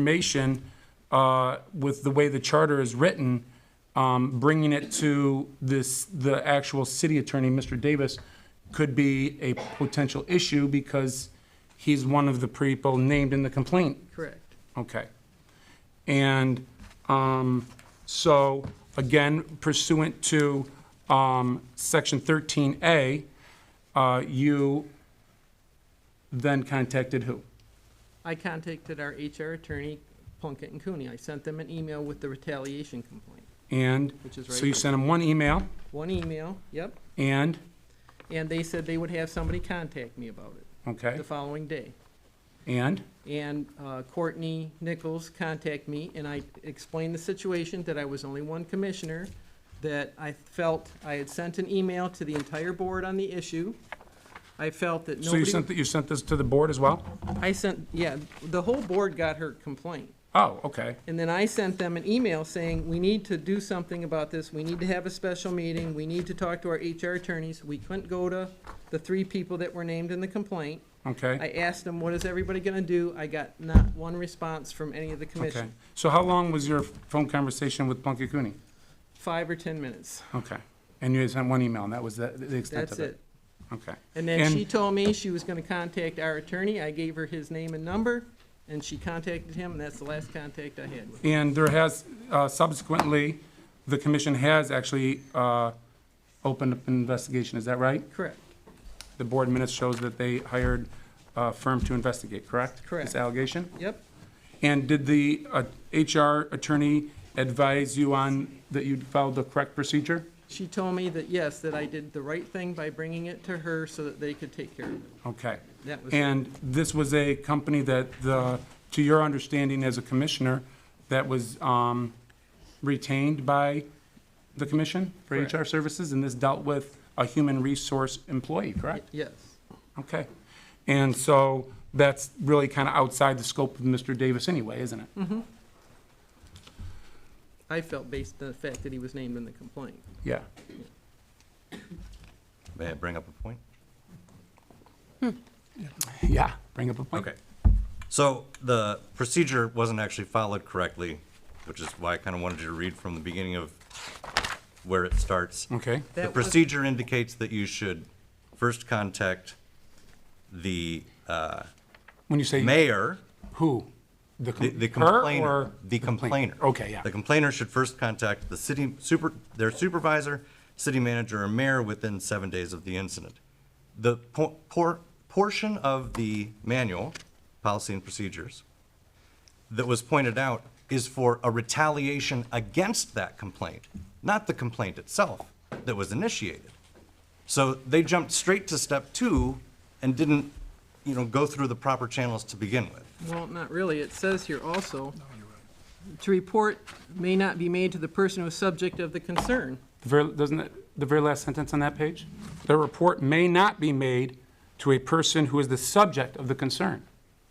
information uh, with the way the charter is written, um, bringing it to this, the actual city attorney, Mr. Davis, could be a potential issue because he's one of the people named in the complaint. Correct. Okay. And um, so, again, pursuant to um, Section 13A, uh, you then contacted who? I contacted our HR attorney, Plunkett and Cooney. I sent them an email with the retaliation complaint. And Which is right so you here. sent him one email, One email, yep, and, and they said they would have somebody contact me about it okay, the following day. and, And uh, Courtney Nichols contacted me, and I explained the situation, that I was only one commissioner, that I felt I had sent an email to the entire board on the issue. I felt that so you nobody, sent, th- you sent this to the board as well? I sent, yeah, the whole board got her complaint. Oh, okay, And then I sent them an email saying, we need to do something about this, we need to have a special meeting, we need to talk to our HR attorneys. We couldn't go to the three people that were named in the complaint. I okay, asked them, what is everybody gonna do? I got not one response from any of the okay. commission. So how long was your phone conversation with Plunkett Cooney? Five or ten minutes, Okay, and you sent one email, and that was the the extent that's of it? it. That's it. Okay. And then And- she told me she was gonna contact our attorney, I gave her his name and number, and she contacted him, and that's the last contact I had with her. And there has, uh, subsequently, the commission has actually uh, opened up an investigation, is that right? Correct, The board minutes shows that they hired a firm to investigate, correct? Correct. This allegation? yep, And did the uh, HR attorney advise you on that you followed the correct procedure? She told me that, yes, that I did the right thing by bringing it to her so that they could take care of it. Okay. That was, And this was a company that, the, to your understanding as a commissioner, that was um, retained by the commission for Correct. HR services, and this dealt with a human resource employee, correct? yes, Okay. And so that's really kind of outside the scope of Mr. Davis anyway, isn't it? Mm-hmm. I felt based on the fact that he was named in the complaint. Yeah. May I bring up a point? Yeah, bring up a point. Okay. So the procedure wasn't actually followed correctly, which is why I kind of wanted you to read from the beginning of where it starts. Okay, The That was- procedure indicates that you should first contact the uh, when you say mayor, who? The the- com- the her complainer. or- The complainer. Okay, yeah. The complainer should first contact the city super, their supervisor, city manager, or mayor within seven days of the incident. The por- por- portion of the manual, policy and procedures, that was pointed out is for a retaliation against that complaint, not the complaint itself that was initiated. So they jumped straight to step two and didn't, you know, go through the proper channels to begin with. Well, not really, it says here also, to report may not be made to the person who is subject of the concern. The very, doesn't it, the very last sentence on that page? The report may not be made to a person who is the subject of the concern.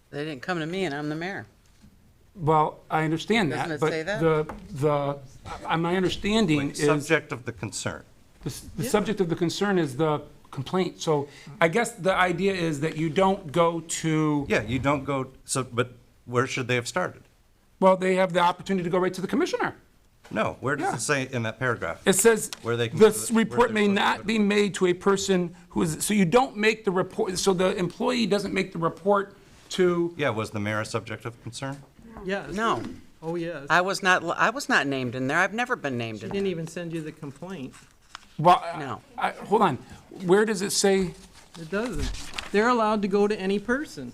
They didn't come to me, and I'm the mayor. Well, I understand that, Doesn't it but say that? the, the, I- my understanding is, the Subject of the concern. s- the subject of the concern is the complaint. So I guess the idea is that you don't go to, Yeah, you don't go, so, but where should they have started? well, they have the opportunity to go right to the commissioner. No, where does Yeah. it say in that paragraph? It says, Where they can- this where report they're may supposed to not put be made to a person who is, so you don't make the report, so the employee doesn't make the report to Yeah, was the mayor a subject of concern? Yes. No, Oh, yes. I was not, I was not named in there. I've never been named She in there. didn't even send you the complaint. Well, No. I, hold on. Where does it say? It doesn't. They're allowed to go to any person.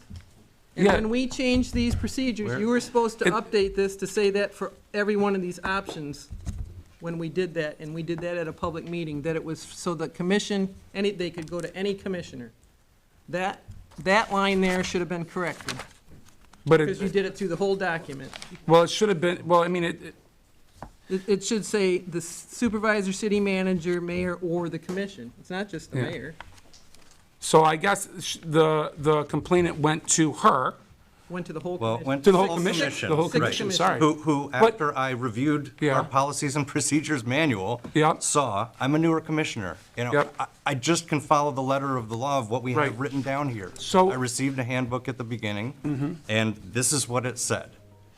And Yeah. when we changed these procedures, you were supposed to It- update this to say that for every one of these options when we did that, and we did that at a public meeting, that it was so the commission, any, they could go to any commissioner. That, that line there should have been corrected, But because you it, did it through the whole document. well, it should have been, well, I mean, it, it- It, it should say the supervisor, city manager, mayor, or the commission. It's not just the Yeah. mayor. so I guess sh- the, the complainant went to her, Went to the whole Well, it commission. went to to the the whole commission, the whole Six commission, commissioners. sorry. Who, who, after I reviewed Yeah. our policies and procedures manual, Yeah. saw, I'm a newer commissioner, you know, Yep. I, I just can follow the letter of the law of what we Right. have written down here. So- Mm-hmm. I received a handbook at the beginning, and this is what it said.